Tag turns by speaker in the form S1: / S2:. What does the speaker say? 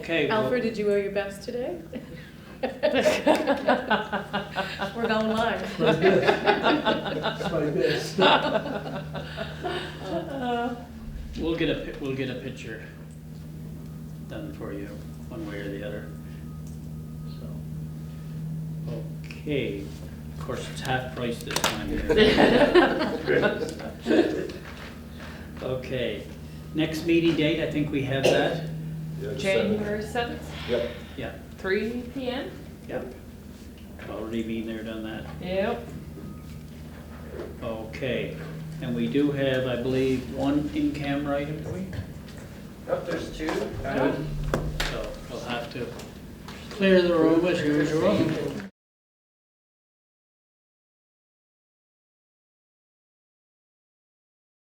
S1: Okay, well,
S2: Alfred, did you wear your best today? We're going live.
S3: My best, my best.
S2: Uh,
S1: we'll get a, pi- we'll get a picture done for you, one way or the other. So, okay, of course, it's half price this time here. Okay, next meeting date, I think we have that,
S4: Yeah, just send it.
S5: January seventh,
S4: Yep.
S1: yeah,
S5: three P M?
S1: yep. Already been there, done that.
S5: Yep.
S1: Okay, and we do have, I believe, one in-camera item, do we?
S6: Nope, there's two.
S1: So we'll have to clear the room as usual.